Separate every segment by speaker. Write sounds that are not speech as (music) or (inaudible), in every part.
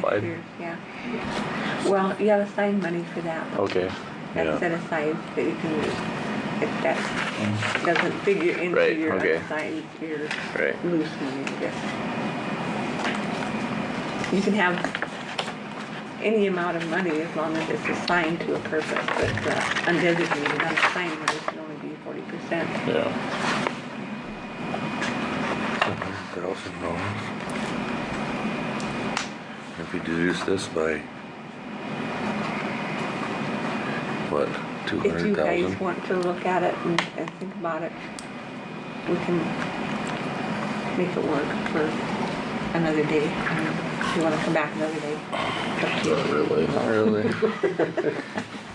Speaker 1: Five.
Speaker 2: this year, yeah. Well, you have assigned money for that.
Speaker 1: Okay,
Speaker 2: That's
Speaker 1: yeah,
Speaker 2: set aside that you can use. If that doesn't figure into
Speaker 1: Right,
Speaker 2: your
Speaker 1: okay.
Speaker 2: assigned, your
Speaker 1: right.
Speaker 2: loose money, I guess. You can have any amount of money as long as it's assigned to a purpose, but uh, undesignated, unassigned money can only be forty percent.
Speaker 1: Yeah,
Speaker 3: thousand dollars. If you deduce this by what, two
Speaker 2: If you
Speaker 3: hundred
Speaker 2: guys
Speaker 3: thousand?
Speaker 2: want to look at it and, and think about it, we can make it work for another day. If you wanna come back another day. Up to you.
Speaker 1: not really.
Speaker 3: Not really.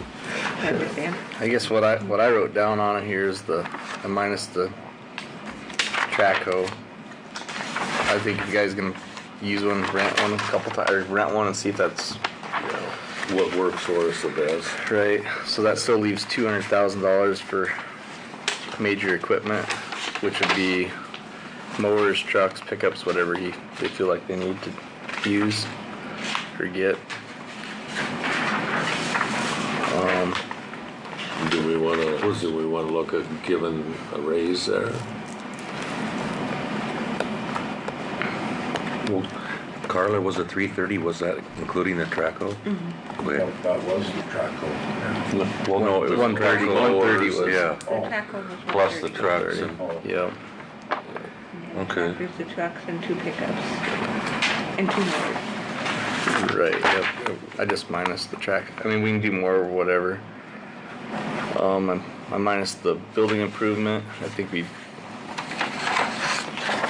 Speaker 2: (laughs) I understand.
Speaker 4: I guess what I, what I wrote down on it here is the, I minus the track hoe. I think you guys can use one, rent one a couple times, or rent one and see if that's
Speaker 3: Yeah. What works for us the best?
Speaker 4: right. So that still leaves two hundred thousand dollars for major equipment, which would be mowers, trucks, pickups, whatever he, they feel like they need to use or get.
Speaker 3: Do we wanna, do we wanna look at giving a raise there? Well, Carla, was it three thirty, was that including the Traco? Okay.
Speaker 5: That that was the track hole.
Speaker 3: Well, no, it was.
Speaker 4: One thirty.
Speaker 3: Traco
Speaker 4: One thirty
Speaker 3: was-
Speaker 4: was-
Speaker 3: Yeah,
Speaker 2: The track one was
Speaker 3: Oh, plus the
Speaker 2: 130.
Speaker 3: trucks and,
Speaker 4: Yep.
Speaker 3: Okay.
Speaker 2: There's the trucks and two pickups and two mowers.
Speaker 4: Right, yep. I just minus the track. I mean, we can do more or whatever. Um, I'm, I minus the building improvement. I think we,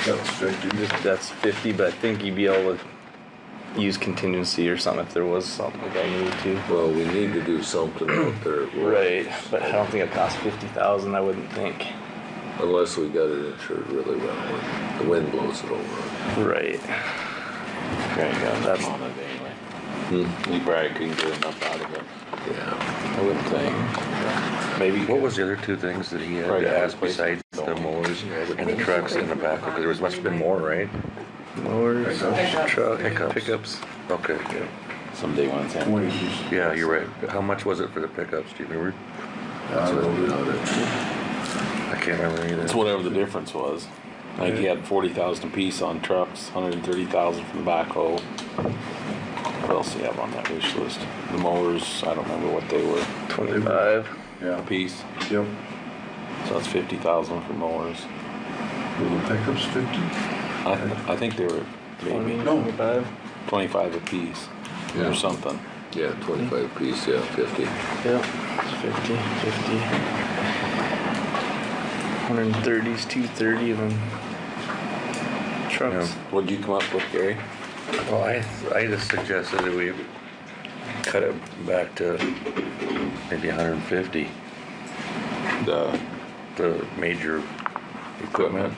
Speaker 5: That's fifty.
Speaker 4: that's fifty, but I think you'd be able to use contingency or something if there was something like I needed to.
Speaker 3: well, we need to do
Speaker 6: (clears throat)
Speaker 3: something out there.
Speaker 4: Right, but I don't think it costs fifty thousand, I wouldn't think.
Speaker 3: Unless we got it insured really well, when the wind blows it over.
Speaker 4: Right. There you go, that's,
Speaker 6: on it anyway. You probably couldn't get enough out of it,
Speaker 3: Yeah.
Speaker 6: I would think. Maybe.
Speaker 5: What was the other two things that he had
Speaker 6: Right,
Speaker 5: to ask
Speaker 6: place.
Speaker 5: besides the mowers
Speaker 2: I
Speaker 5: and the
Speaker 2: think
Speaker 5: trucks
Speaker 2: it's
Speaker 5: and the backhoe? Because there was, must have been more, right?
Speaker 4: mowers,
Speaker 5: Pickups.
Speaker 4: truck,
Speaker 5: Pickups.
Speaker 4: pickups.
Speaker 5: Okay,
Speaker 6: Someday when it's in.
Speaker 5: yeah, you're right. How much was it for the pickups, do you remember? I can't remember
Speaker 6: It's
Speaker 5: either.
Speaker 6: whatever the difference was. Like he had forty thousand apiece on trucks, hundred and thirty thousand from the backhoe. What else do you have on that wish list? The mowers, I don't remember what they were,
Speaker 4: Twenty-five.
Speaker 5: Yeah,
Speaker 6: apiece,
Speaker 5: yep.
Speaker 6: so that's fifty thousand for mowers.
Speaker 5: Pickups fifty?
Speaker 6: I, I think they were maybe
Speaker 5: No.
Speaker 6: twenty-five apiece
Speaker 3: Yeah.
Speaker 6: or something.
Speaker 3: Yeah, twenty-five piece, yeah, fifty.
Speaker 4: Yep, it's 50, 50. 130 is 230 of them. Trucks.
Speaker 6: What'd you come up with, Gary?
Speaker 5: Well, I, I just suggested that we cut it back to maybe hundred and fifty,
Speaker 6: The
Speaker 5: the major
Speaker 6: equipment?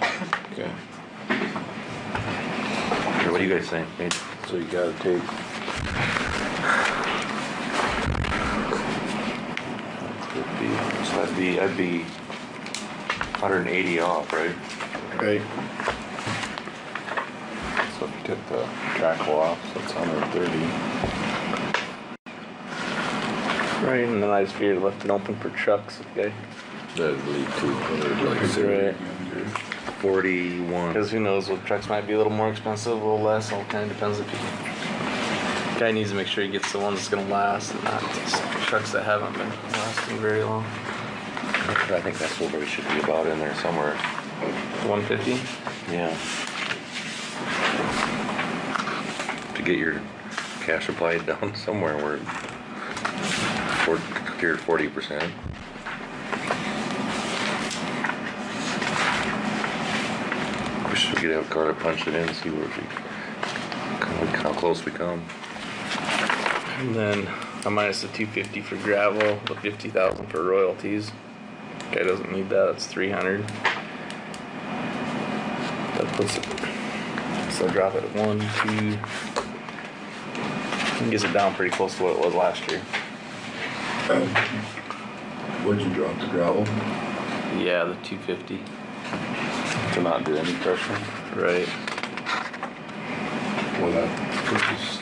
Speaker 6: Okay,
Speaker 5: Or What do you guys think? Major-
Speaker 6: so you gotta take
Speaker 5: Fifty, so that'd be, that'd be hundred and eighty off, right?
Speaker 4: Right.
Speaker 6: So if you took the track off, so it's hundred and thirty.
Speaker 4: Right, and then I just figured left it open for trucks, okay?
Speaker 3: That'd leave two hundred, like, zero.
Speaker 4: Right.
Speaker 5: Forty-one.
Speaker 4: Because who knows, what trucks might be a little more expensive, a little less, all kind of depends if you. Guy needs to make sure he gets the ones that's gonna last and not just trucks that haven't been lasting very long.
Speaker 5: I think that's what we should be about in there somewhere.
Speaker 4: 150?
Speaker 5: Yeah. To get your cash applied (laughs) down somewhere where for, your forty percent. We should get out Carter punch it in, see where we, how close we come.
Speaker 4: And then I minus the two fifty for gravel, the fifty thousand for royalties. Guy doesn't need that, it's three hundred. That puts it, so drop it at one, two. and Gets it down pretty close to what it was last year.
Speaker 5: Would you drop the gravel?
Speaker 4: Yeah, the two fifty.
Speaker 6: To not do any crushing.
Speaker 4: Right.
Speaker 5: Well, that puts us